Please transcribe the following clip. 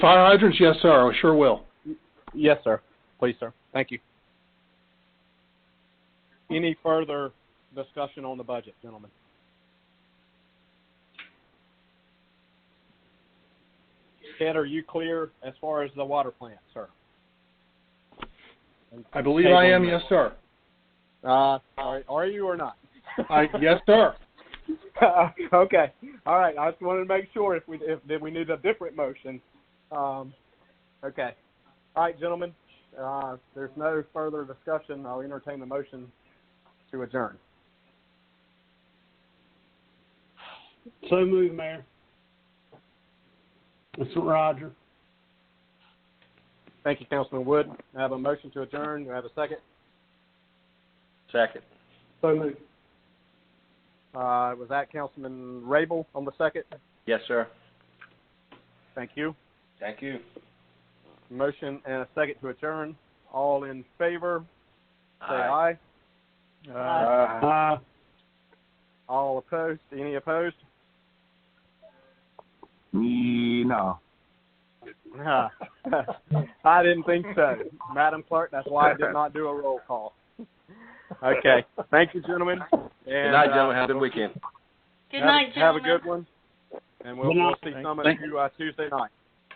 Fire hydrants, yes, sir. I sure will. Yes, sir. Please, sir. Thank you. Any further discussion on the budget, gentlemen? Ted, are you clear as far as the water plant, sir? I believe I am, yes, sir. Uh, are, are you or not? I yes, sir. okay. All right. I just wanted to make sure if we if that we need a different motion. Um, okay. All right, gentlemen. Uh, there's no further discussion. I'll entertain the motion to adjourn. So moved, Mayor. This is Roger. Thank you, Councilman Wood. I have a motion to adjourn. Do I have a second? Second. So moved. Uh, was that Councilman Rabel on the second? Yes, sir. Thank you. Thank you. Motion and a second to adjourn. All in favor, say Aye. aye. Aye. Uh, All opposed? Any opposed? No. Huh. I didn't think so. Madam Clerk, that's why I did not do a roll call. Okay. Thank you, gentlemen. And, Good night, uh, gentlemen. Have a good weekend. Good have- night, gentlemen. Have a good one. And we'll, we'll see some of Thank- you uh, Tuesday night.